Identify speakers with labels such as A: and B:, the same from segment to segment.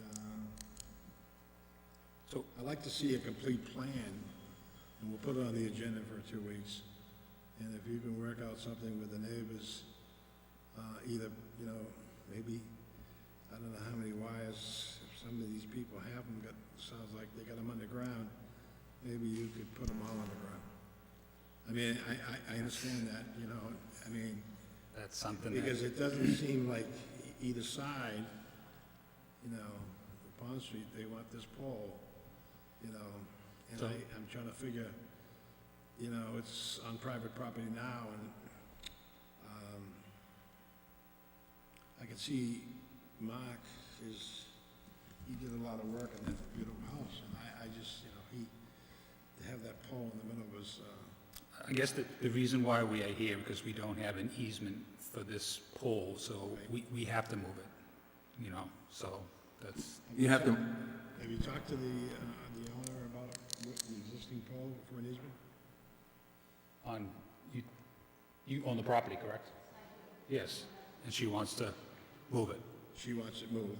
A: uh, So I'd like to see a complete plan, and we'll put it on the agenda for two weeks. And if you can work out something with the neighbors, uh, either, you know, maybe, I don't know how many wires, if some of these people have them, got, sounds like they got them underground, maybe you could put them all underground. I mean, I, I, I understand that, you know, I mean,
B: That's something that,
A: because it doesn't seem like e- either side, you know, Pond Street, they want this pole, you know, and I, I'm trying to figure, you know, it's on private property now, and, um, I can see Mark is, he did a lot of work on that beautiful house, and I, I just, you know, he, to have that pole in the middle was, uh,
B: I guess the, the reason why we are here, because we don't have an easement for this pole, so we, we have to move it, you know, so that's,
C: You have to,
A: Have you talked to the, uh, the owner about what the existing pole for an easement?
B: on, you, you own the property, correct? Yes, and she wants to move it.
A: She wants it moved.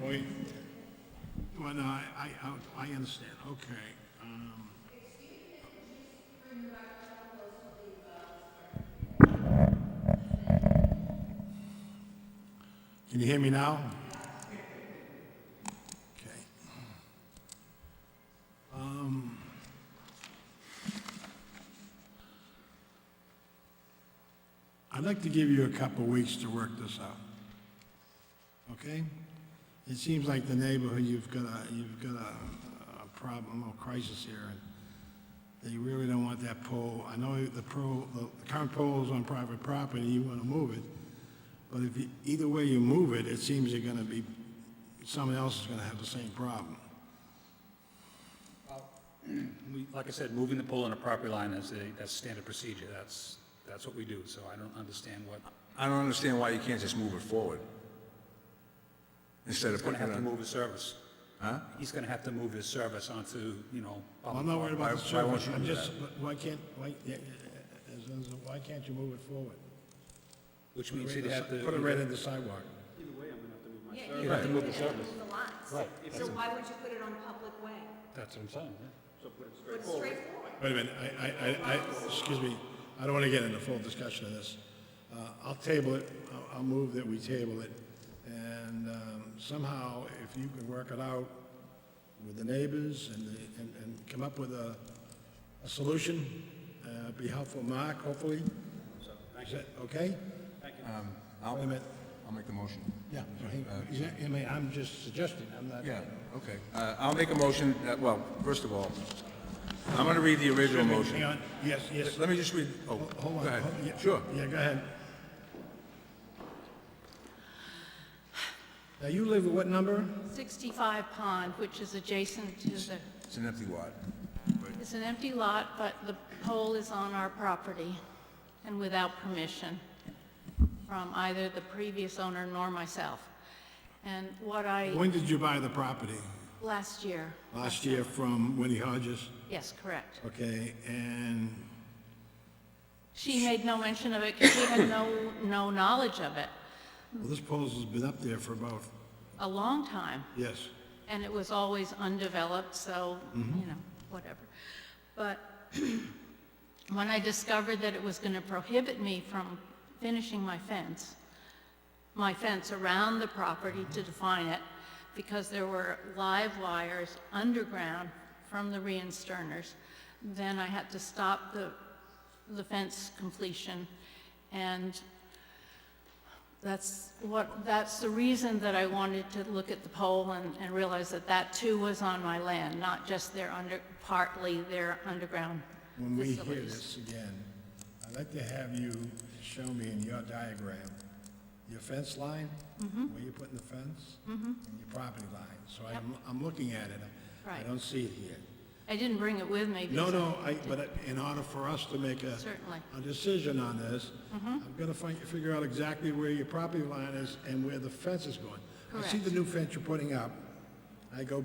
A: Boy, Hmm. well, no, I, I, I- I understand, okay. um, Can you hear me now? Okay. Um, I'd like to give you a couple weeks to work this out, okay? It seems like the neighborhood, you've got a, you've got a, a problem, a crisis here, and they really don't want that pole. I know the pro, the current pole is on private property, you want to move it, but if, you- either way you move it, it seems you're going to be, someone else is going to have the same problem.
B: We, like I said, moving the pole on a property line is a, that's standard procedure, that's, that's what we do, so I don't understand what,
C: I don't understand why you can't just move it forward. Instead of
B: he's gonna
C: putting
B: have
C: it
B: to
C: on,
B: move his service.
C: huh?
B: He's gonna have to move his service onto, you know.
A: Well, I'm not worried about the
C: Why- why won't
A: surface,
C: you
A: I'm
C: do
A: just, but why can't, why, yeah, yeah, as long as- why can't you move it forward?
B: Which means he'd have to.
A: Put it right in the sidewalk.
D: Yeah,
B: You'd
D: you
B: have
D: have
B: to
D: to
B: move the
D: move
B: service.
D: the lots.
B: Right.
D: So why would you put it on public way?
B: That's what I'm saying, yeah.
D: Put it straight forward.
A: Wait a minute, I, I, I, I- excuse me, I don't want to get into full discussion of this. Uh, I'll table it, I'll- I'll move that we table it, and um, somehow, if you can work it out with the neighbors and, the- and, and come up with a, a solution, uh, be helpful, Mark, hopefully. Is that okay?
C: I'll,
A: Wait a minute.
C: I'll make the motion.
A: Yeah, so he- he's not- I mean, I'm just suggesting, I'm not.
C: Yeah, okay. Uh, I'll make a motion, that- well, first of all, I'm gonna read the original
A: Hang
C: motion.
A: on, yes, yes.
C: Let me just read,
A: Ho-
C: oh, go
A: Hold on.
C: ahead.
A: Hold- yeah,
C: Sure.
A: Yeah, go ahead. Now, you live at what number?
E: 65 Pond, which is adjacent to the,
C: It's an empty lot.
E: it's an empty lot, but the pole is on our property and without permission from either the previous owner nor myself. And what I,
A: When did you buy the property?
E: last year,
A: Last year from Winnie Hodges?
E: yes, correct.
A: Okay, and,
E: She made no mention of it because she had no, no knowledge of it,
A: well, this pole's has been up there for about,
E: a long time.
A: yes.
E: and it was always undeveloped, so, you know, whatever. But when I discovered that it was going to prohibit me from finishing my fence, my fence around the property to define it, because there were live wires underground from the reinsterners, then I had to stop the, the fence completion, and that's what, that's the reason that I wanted to look at the poll and, and realize that that too was on my land, not just their under, partly their underground
A: When we hear
E: facilities.
A: this again, I'd like to have you show me in your diagram, your fence line, where you're putting the fence, and your property line. So I'm, I'm looking at it. I
E: Right.
A: don't see it here.
E: I didn't bring it with me.
A: No,
E: because-
A: no, I, but in order for us to make a.
E: Certainly. Mm-hmm.
A: A decision on this, I've got to find, figure out exactly where your property line is and where the fence is going. I see
E: Correct.
A: the new fence you're putting up. I go by.